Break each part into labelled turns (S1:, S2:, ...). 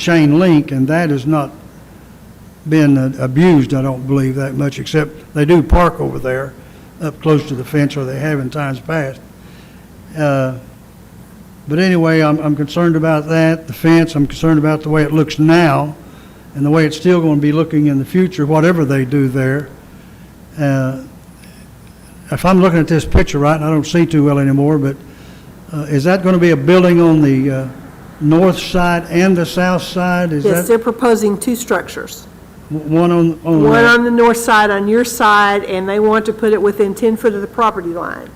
S1: chain link, and that has not been uh, abused, I don't believe, that much, except they do park over there, up close to the fence, or they have in times past. Uh, But anyway, I'm, I'm concerned about that, the fence, I'm concerned about the way it looks now, and the way it's still going to be looking in the future, whatever they do there. Uh, If I'm looking at this picture right, and I don't see too well anymore, but uh, is that going to be a building on the uh, north side and the south side? Is
S2: Yes,
S1: that
S2: they're proposing two structures.
S1: w- one on, on?
S2: One
S1: uh,
S2: on the north side, on your side, and they want to put it within 10 foot of the property line.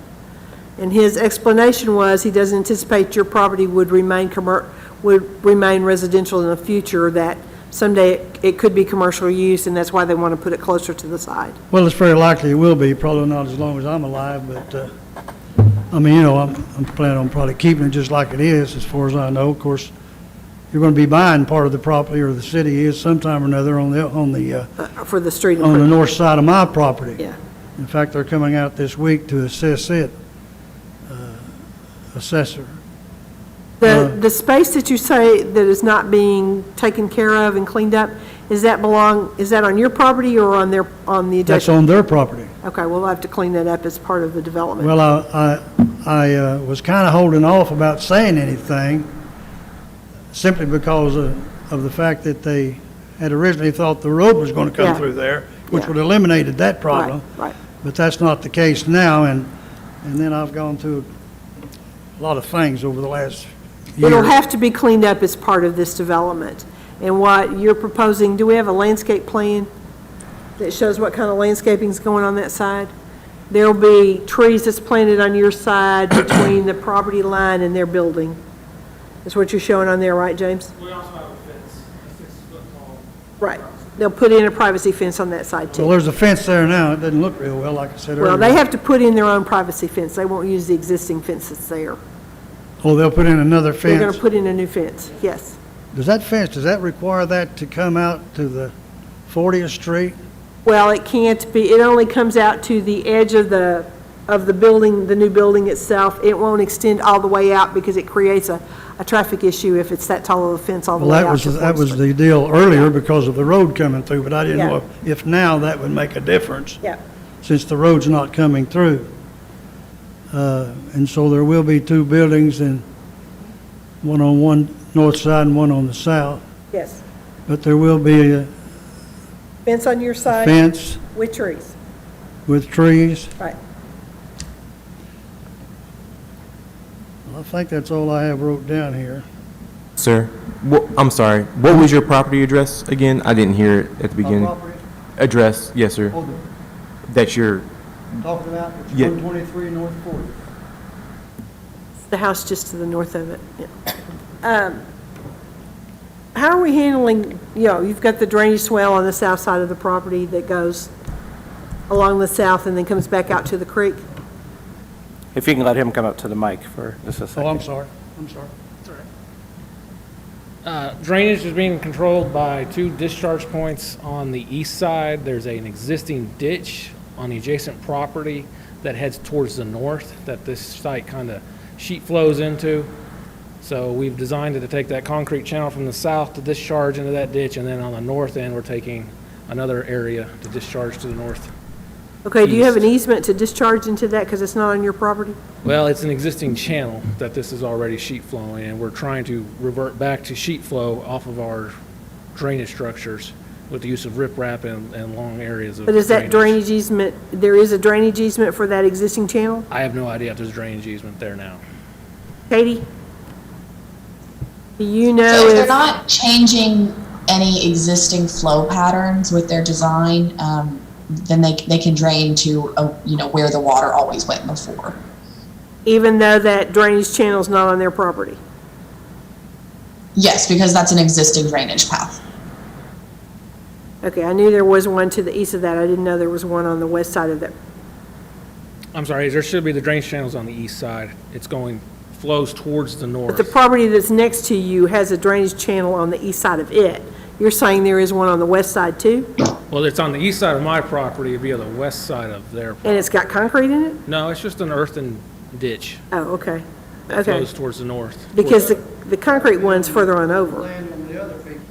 S2: And his explanation was, he does anticipate your property would remain commer, would remain residential in the future, that someday it could be commercial use, and that's why they want to put it closer to the side.
S1: Well, it's very likely it will be, probably not as long as I'm alive, but, uh, I mean, you know, I'm, I'm planning on probably keeping it just like it is, as far as I know. Of course, you're gonna be buying part of the property, or the city is sometime or another on the, on the, uh,
S2: uh, for the street.
S1: on the
S2: improvement.
S1: north side of my property.
S2: Yeah.
S1: In fact, they're coming out this week to assess it, uh, assessor. Uh-huh.
S2: The, the space that you say that is not being taken care of and cleaned up, is that belong, is that on your property or on their, on the
S1: That's
S2: adjacent?
S1: on their property.
S2: Okay, we'll have to clean that up as part of the development.
S1: Well, I, I, I uh, was kind of holding off about saying anything, simply because of, of the fact that they had originally thought the road was going to
S2: Yeah.
S1: come through there, which
S2: Yeah.
S1: would have eliminated that problem.
S2: Right, right.
S1: But that's not the case now, and, and then I've gone through a lot of things over the last year.
S2: It'll have to be cleaned up as part of this development. And what you're proposing, do we have a landscape plan that shows what kind of landscaping's going on that side? There'll be trees that's planted on your side between the property line and their building. That's what you're showing on there, right, James?
S3: We also have a fence, a six-foot tall.
S2: Right. They'll put in a privacy fence on that side
S1: Well,
S2: too.
S1: there's a fence there now, it doesn't look real well, like I said earlier.
S2: Well, they have to put in their own privacy fence. They won't use the existing fence that's there.
S1: Oh, they'll put in another
S2: They're going to
S1: fence.
S2: put in a new fence, yes.
S1: Does that fence, does that require that to come out to the 40th Street?
S2: Well, it can't be, it only comes out to the edge of the, of the building, the new building itself. It won't extend all the way out because it creates a, a traffic issue if it's that tall of a fence all the
S1: Well,
S2: way out.
S1: that was,
S2: to
S1: that
S2: Fourth
S1: was
S2: Street.
S1: the deal earlier because of the road coming through, but I didn't
S2: Yeah.
S1: know if- if now that would make a difference,
S2: Yeah,
S1: since the road's not coming through. Uh, And so there will be two buildings and one on one north side and one on the south,
S2: yes.
S1: but there will be a
S2: Fence on your side
S1: fence
S2: with trees,
S1: with trees.
S2: right.
S1: I think that's all I have wrote down here.
S4: Sir, wha- I'm sorry, what was your property address again? I didn't hear it at the beginning. Address, yes, sir. That's your,
S1: Talking about, it's
S4: Yeah.
S1: 123 North 40.
S2: The house just to the north of it, yeah. Um, How are we handling, you know, you've got the drainage swale on the south side of the property that goes along the south and then comes back out to the creek?
S5: If you can let him come up to the mic for just a
S1: Oh, I'm
S5: second.
S1: sorry, I'm sorry.
S3: Uh, Drainage is being controlled by two discharge points on the east side. There's an existing ditch on the adjacent property that heads towards the north that this site kind of sheet flows into. So we've designed it to take that concrete channel from the south to discharge into that ditch, and then on the north end, we're taking another area to discharge to the north.
S2: Okay, do you have an easement to discharge into that because it's not on your property?
S3: Well, it's an existing channel that this is already sheet flowing, and we're trying to revert back to sheet flow off of our drainage structures with the use of riprap and, and long areas of
S2: But is that drainage easement, there is a drainage easement for that existing channel?
S3: I have no idea if there's drainage easement there now.
S2: Katie? Do you know
S6: So they're
S2: if,
S6: not changing any existing flow patterns with their design, um, then they, they can drain to, uh, you know, where the water always went before.
S2: even though that drainage channel's not on their property?
S6: Yes, because that's an existing drainage path.
S2: Okay, I knew there was one to the east of that. I didn't know there was one on the west side of that.
S3: I'm sorry, there should be the drainage channels on the east side. It's going, flows towards the
S2: But the
S3: north.
S2: property that's next to you has a drainage channel on the east side of it. You're saying there is one on the west side too?
S3: Well, it's on the east side of my property, it'd be on the west side of their,
S2: And it's got concrete in it?
S3: no, it's just an earthen ditch.
S2: Oh, okay.
S3: that
S2: Okay.
S3: Flows towards the north.
S2: Because the, the concrete one's further on over.
S1: Land on the other people's